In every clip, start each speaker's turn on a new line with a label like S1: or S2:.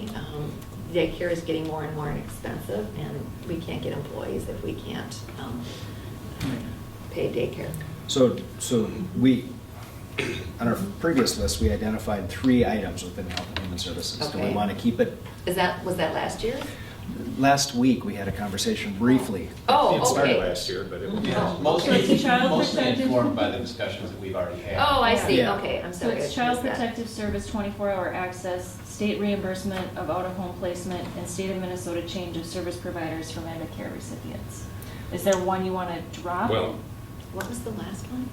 S1: daycare Um, is getting more and more expensive, and we can't get employees if we can't um, pay daycare.
S2: So, so we, on our previous list, we identified three items within Health and Human Services. Do we
S1: Okay.
S2: want to keep it?
S1: Is that, was that last year?
S2: Last week, we had a conversation briefly.
S1: Oh, okay.
S3: It started last year, but it was.
S4: Yeah,
S1: Oh.
S4: mostly,
S5: It's a child
S4: mostly
S5: protective-
S4: informed by the discussions that we've already had.
S1: Oh, I see,
S2: Yeah.
S1: okay, I'm
S5: So
S1: sorry.
S5: it's
S1: I
S5: Child
S1: missed that.
S5: Protective Service, twenty-four hour access, state reimbursement of out-of-home placement, and state of Minnesota change of service providers for Medicare recipients. Is there one you wanna drop?
S3: Well,
S1: What was the last one?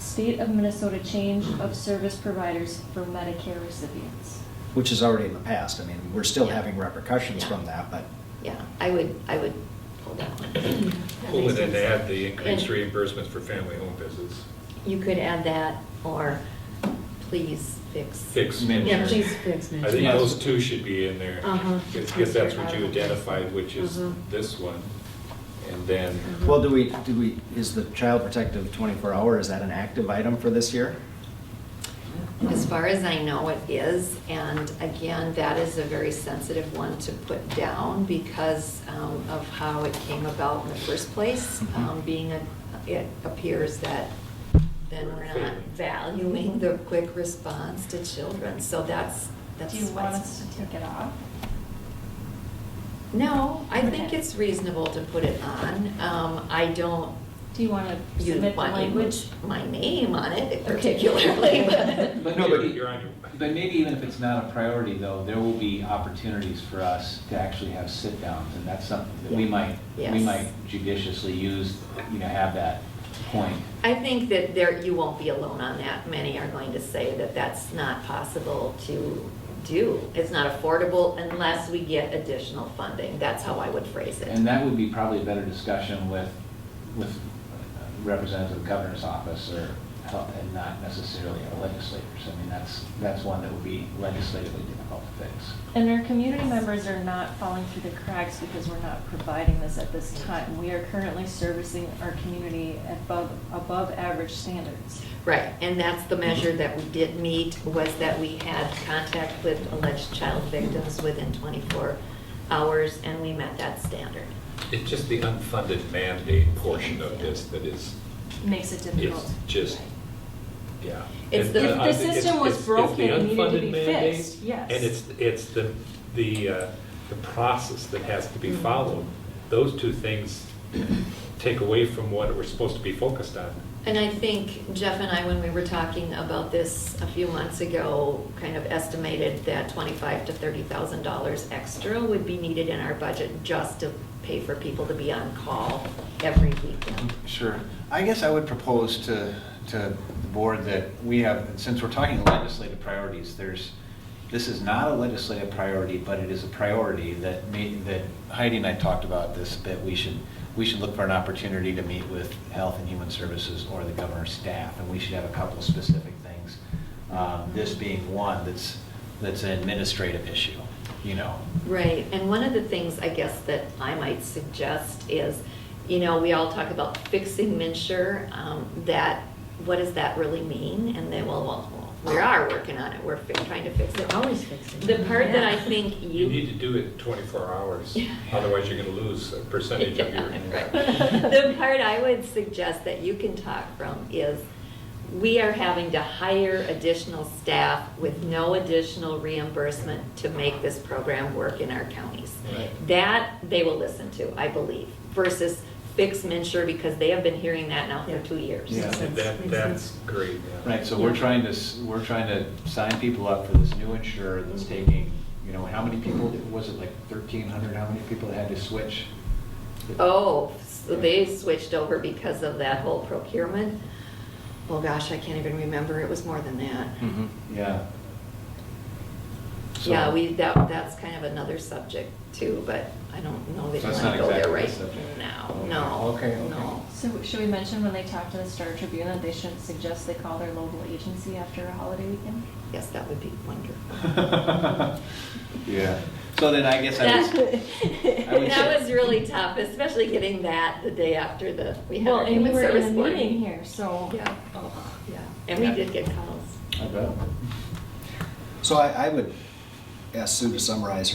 S5: State of Minnesota change of service providers for Medicare recipients.
S2: Which is already in the past. I mean, we're still
S1: Yeah.
S2: having repercussions
S1: Yeah.
S2: from that, but
S1: Yeah, I would, I would pull that one. That
S3: pull
S1: makes
S3: it and
S1: sense.
S3: add the increased
S1: And-
S3: reimbursement for family home visits.
S1: You could add that, or please fix.
S3: Fix
S4: Managed.
S6: Yeah, please
S3: Medicare.
S6: fix
S3: I think
S6: management.
S4: Yes.
S3: those two should be in there,
S6: Uh-huh.
S3: because that's what you identified, which is
S6: Uh-huh.
S3: this one. And then,
S1: Mm-hmm.
S2: Well, do we, do we, is the child protective 24-hour, is that an active item for this year?
S1: As far as I know, it is, and again, that is a very sensitive one to put down because um, of how it came about in the first place.
S2: Mhm.
S1: Um, Being a, it appears that then we're not valuing the quick response to children, so that's, that's.
S5: Do you
S1: why
S5: want
S1: it's
S5: us
S1: not
S5: to
S1: here.
S5: take it off?
S1: No, I think
S5: Okay.
S1: it's reasonable to put it on. Um, I don't,
S5: Do you wanna
S1: you
S5: submit the
S1: want me to
S5: language?
S1: put my name on it
S5: Okay.
S1: particularly, but.
S4: But
S3: No, but
S4: maybe-
S3: you're on your-
S4: But maybe even if it's not a priority, though, there will be opportunities for us to actually have sit-downs, and that's something that we
S1: Yeah.
S4: might, we
S1: Yes.
S4: might judiciously use, you know, have that point.
S1: I think that there, you won't be alone on that. Many are going to say that that's not possible to do. It's not affordable unless we get additional funding. That's how I would phrase it.
S4: And that would be probably a better discussion with, with representative of the governor's office or, health- and not necessarily our legislators. I mean, that's, that's one that would be legislatively difficult to fix.
S5: And our community members are not falling through the cracks because we're not providing this at this time. We are currently servicing our community above, above average standards.
S1: Right, and that's the measure that we did meet, was that we had contact with alleged child victims within 24 hours, and we met that standard.
S3: it's just the unfunded mandate portion of this that is,
S5: Makes it difficult.
S3: is just, yeah.
S1: It's
S3: And
S1: the-
S3: I
S1: If the
S3: think it's-
S5: system was
S3: it's- it's the
S5: broken, it needed to
S3: unfunded
S5: be
S3: mandate,
S5: fixed, yes.
S3: And it's, it's the, the, uh, the process that has to be followed. Those two things take away from what we're supposed to be focused on.
S1: And I think Jeff and I, when we were talking about this a few months ago, kind of estimated that twenty-five to thirty thousand dollars extra would be needed in our budget just to pay for people to be on call every weekend.
S4: Sure. I guess I would propose to, to the board that we have, since we're talking legislative priorities, there's, this is not a legislative priority, but it is a priority that may, that Heidi and I talked about this, that we should, we should look for an opportunity to meet with Health and Human Services or the governor's staff, and we should have a couple of specific things. Um, This being one that's, that's an administrative issue, you know.
S1: Right, and one of the things I guess that I might suggest is, you know, we all talk about fixing Minsure, um, that, what does that really mean? And then, well, well, we are working on it, we're fi- trying to fix it.
S6: They're always fixing it.
S1: The part that I
S5: Yeah.
S1: think
S3: You need to do it 24 hours,
S1: Yeah.
S3: otherwise you're going to lose a percentage of your.
S1: Right. The part I would suggest that you can talk from is, we are having to hire additional staff with no additional reimbursement to make this program work in our counties.
S3: Right.
S1: That they will listen to, I believe, versus fix Minsure, because they have been hearing that now for
S6: Yeah.
S1: two years.
S2: Yeah.
S3: That, that's great. yeah.
S4: Right, so we're trying to, s- we're trying to sign people up for this new insurer that's taking, you know, how many people, was it like thirteen hundred, how many people had to switch?
S1: Oh, so they switched over because of that whole procurement? Well, gosh, I can't even remember, it was more than that.
S3: Mm-hmm.
S4: Yeah. So-
S1: Yeah, we, that, that's kind of another subject too, but I don't know that you
S4: That's
S1: want to go
S4: not
S1: there
S4: exactly
S1: right
S4: the subject.
S1: now.
S4: Okay.
S1: No,
S4: Okay, okay.
S1: no.
S5: So should we mention when they talk to the Star Tribune that they shouldn't suggest they call their local agency after a holiday weekend?
S1: Yes, that would be wonderful.
S4: Yeah, so then I guess I was,
S1: That
S4: I
S1: that
S4: would say-
S1: was really tough, especially getting that the day after the, we had
S5: Well,
S1: our
S5: and you
S1: human
S5: were in a
S1: service board.
S5: meeting here, so.
S1: Yeah, oh, yeah. And we
S4: Yeah.
S1: did get calls.
S4: I bet.
S2: So I, I would ask Sue to summarize her